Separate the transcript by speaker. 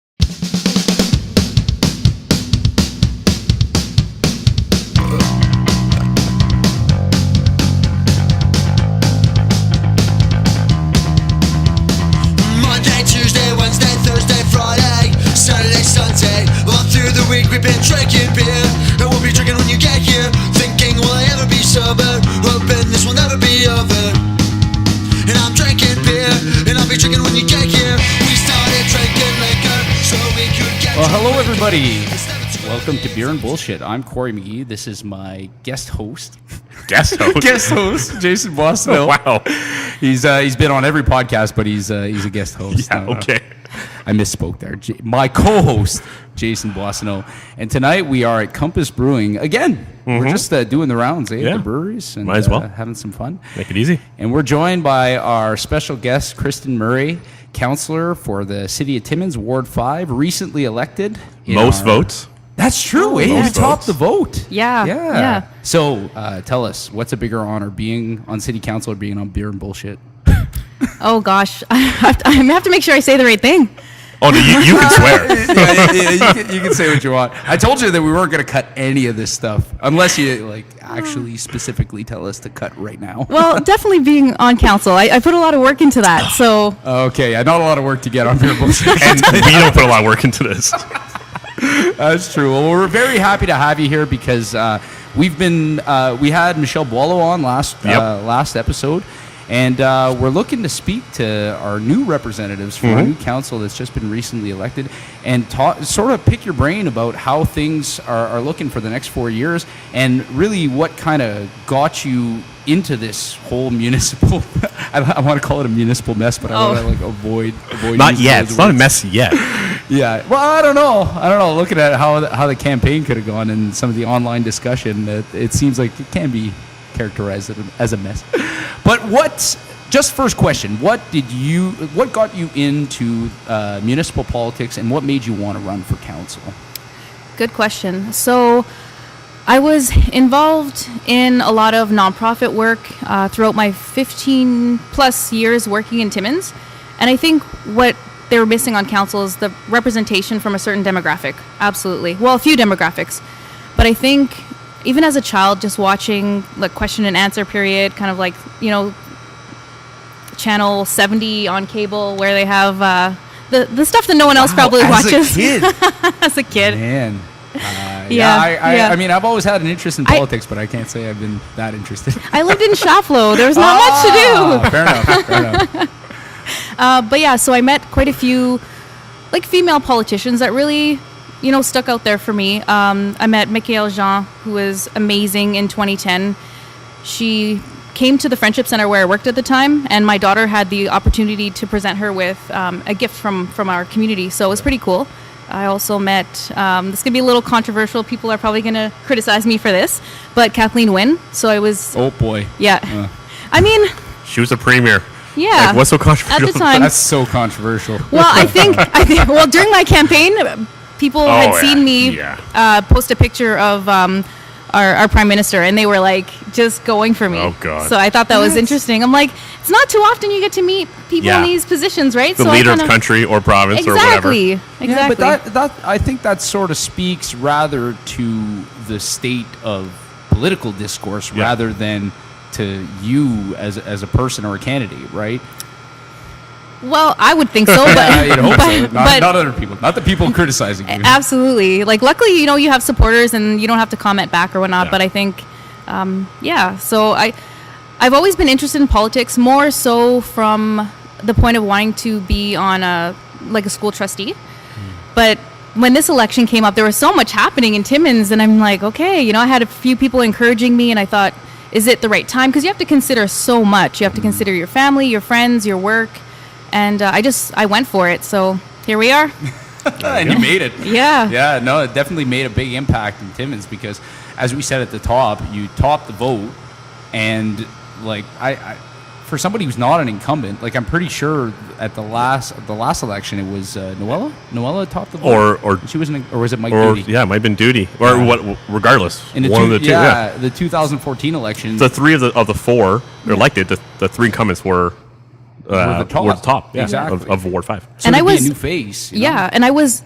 Speaker 1: we've been drinking beer, and we'll be drinking when you get here. Thinking, will I ever be sober? Hoping this will never be over. And I'm drinking beer, and I'll be drinking when you get here. We started drinking liquor so we could get.
Speaker 2: Well, hello,
Speaker 1: drunk.
Speaker 2: everybody.
Speaker 1: It's never too
Speaker 2: Welcome
Speaker 1: early.
Speaker 2: to Beer and Bullshit. I'm Corey McGee. This is my guest host.
Speaker 3: guest host.
Speaker 2: Guest host, Jason Bosville.
Speaker 3: Wow.
Speaker 2: He's uh, he's been on every podcast, but he's uh, he's a guest host.
Speaker 3: Yeah,
Speaker 2: No, no.
Speaker 3: okay.
Speaker 2: I misspoke there. J- my co-host Jason Bossino, and tonight we are at Compass Brewing again. We're just uh, doing the rounds eh, at
Speaker 3: Mm-hmm. Yeah.
Speaker 2: the breweries and
Speaker 3: Might as well.
Speaker 2: uh, having some fun.
Speaker 3: Make it easy.
Speaker 2: And we're joined by our special guest, Kristen Murray, counselor for the City of Timmins, Ward Five, recently elected. in
Speaker 3: Most
Speaker 4: uh,
Speaker 2: our-
Speaker 3: votes.
Speaker 2: That's true. eh?
Speaker 3: Most
Speaker 2: You topped
Speaker 3: votes.
Speaker 2: the vote.
Speaker 4: Yeah,
Speaker 2: Yeah.
Speaker 4: yeah.
Speaker 2: So uh, tell us, what's a bigger honor, being on City Council or being on Beer and Bullshit?
Speaker 4: Oh gosh, I have, to, I have to make sure I say the right thing.
Speaker 3: Oh no, you, you can swear.
Speaker 2: yeah, yeah, yeah, you, can, you can say what you want. I told you that we weren't going to cut any of this stuff unless you like actually specifically tell us to cut right now.
Speaker 4: Well, definitely being on council. I, I put a lot of work into that. So
Speaker 2: Okay, yeah, not a lot of work to get on Beer and Bullshit.
Speaker 3: And we don't put a lot of work into this.
Speaker 2: That's true. Well, we're very happy to have you here because uh, we've been uh, we had Michelle Boileau on last
Speaker 3: Yep.
Speaker 2: uh, last episode, and uh, we're looking to speak to our new representatives for
Speaker 3: Mm-hmm.
Speaker 2: our new council that's just been recently elected, and ta- sort of pick your brain about how things are, are looking for the next four years, and really what kind of got you into this whole municipal. I, I want to call it a municipal mess, but I
Speaker 4: Oh.
Speaker 2: want to like avoid avoid
Speaker 3: Not
Speaker 2: using
Speaker 3: yet.
Speaker 2: those
Speaker 3: It's not a
Speaker 2: words.
Speaker 3: mess yet.
Speaker 2: Yeah. Well, I don't know. I don't know. Looking at how the, how the campaign could have gone and some of the online discussion, it, it seems like it can be characterized as a- as a mess. But what? Just first question: What did you? What got you into uh, municipal politics, and what made you want to run for council?
Speaker 4: Good question. So, I was involved in a lot of nonprofit work uh, throughout my 15 plus years working in Timmins. And I think what they were missing on council is the representation from a certain demographic. Absolutely. Well, a few demographics. But I think even as a child, just watching like question and answer period, kind of like, you know, channel 70 on cable where they have uh, the, the stuff that no one else probably watches as a kid.
Speaker 2: man. Uh, yeah,
Speaker 4: Yeah,
Speaker 2: I, I,
Speaker 4: yeah.
Speaker 2: I mean, I've always had an interest in
Speaker 4: I-
Speaker 2: politics, but I can't say I've been that interested.
Speaker 4: I lived in Shaflo. There was not much to do.
Speaker 2: Ah, Fair enough. Fair enough.
Speaker 3: Oh.
Speaker 4: Uh, but yeah, so I met quite a few like female politicians that really, you know, stuck out there for me. Um, I met Michael Jean, who was amazing in 2010. She came to the Friendship Center where I worked at the time, and my daughter had the opportunity to present her with um, a gift from from our community. So it was pretty cool. I also met. Um, this gonna be a little controversial. People are probably gonna criticize me for this, but Kathleen Wynne. So I was,
Speaker 2: Oh boy,
Speaker 4: yeah.
Speaker 2: Uh.
Speaker 4: I mean,
Speaker 3: She was the premier.
Speaker 4: Yeah.
Speaker 3: Like, what's so controversial?
Speaker 4: At the time.
Speaker 2: that's so controversial.
Speaker 4: Well, I think, I think well during my campaign, people had
Speaker 3: Oh, yeah,
Speaker 4: seen me
Speaker 3: yeah.
Speaker 4: uh, post a picture of um, our, our prime minister, and they were like just going for me.
Speaker 3: Oh, God.
Speaker 4: So I thought that was interesting. I'm like, it's not too often you get to meet people
Speaker 3: Yeah.
Speaker 4: in these positions, right?
Speaker 3: The
Speaker 4: so
Speaker 3: leader
Speaker 4: I
Speaker 3: of
Speaker 4: kinda,
Speaker 3: the country or province or whatever.
Speaker 4: Exactly. Exactly.
Speaker 2: Yeah, but that, that I think that sort of speaks rather to the state of political discourse
Speaker 3: Yeah.
Speaker 2: rather than to you as as a person or a candidate, right?
Speaker 4: well, I would think so, but
Speaker 2: Yeah, you'd hope so.
Speaker 4: but-
Speaker 2: Not,
Speaker 4: but-
Speaker 2: not other people, not the people criticizing you.
Speaker 4: Absolutely. Like, luckily, you know, you have supporters and you don't have to comment back or whatnot.
Speaker 3: Yeah.
Speaker 4: But I think, um, yeah. So I, I've always been interested in politics, more so from the point of wanting to be on a like a school trustee.
Speaker 2: Hmm.
Speaker 4: But when this election came up, there was so much happening in Timmins, and I'm like, okay, you know, I had a few people encouraging me, and I thought, is it the right time? Because you have to consider so much. You
Speaker 2: Hmm.
Speaker 4: have to consider your family, your friends, your work, and uh, I just I went for it. So here we are.
Speaker 2: and you Uh, made it.
Speaker 4: Yeah.
Speaker 2: Yeah, no, it definitely made a big impact in Timmins because, as we said at the top, you topped the vote, and like I, I for somebody who's not an incumbent, like I'm pretty sure at the last the last election it was uh, Noella. Noella topped the vote,
Speaker 3: Or- or-
Speaker 2: she was an, or was it Mike
Speaker 3: Or
Speaker 2: Doody?
Speaker 3: yeah, it might have been duty. Or
Speaker 2: Yeah.
Speaker 3: what regardless.
Speaker 2: In the
Speaker 3: one
Speaker 2: two,
Speaker 3: of the two. Yeah.
Speaker 2: yeah, the 2014 election.
Speaker 3: The three of the of the four that are elected, the, the three incumbents were uh,
Speaker 2: the top.
Speaker 3: yeah,
Speaker 2: Exactly.
Speaker 3: of, of Ward five.
Speaker 2: so
Speaker 4: and I
Speaker 2: there'd be
Speaker 4: was-
Speaker 2: a new face. you know?
Speaker 4: Yeah, and I was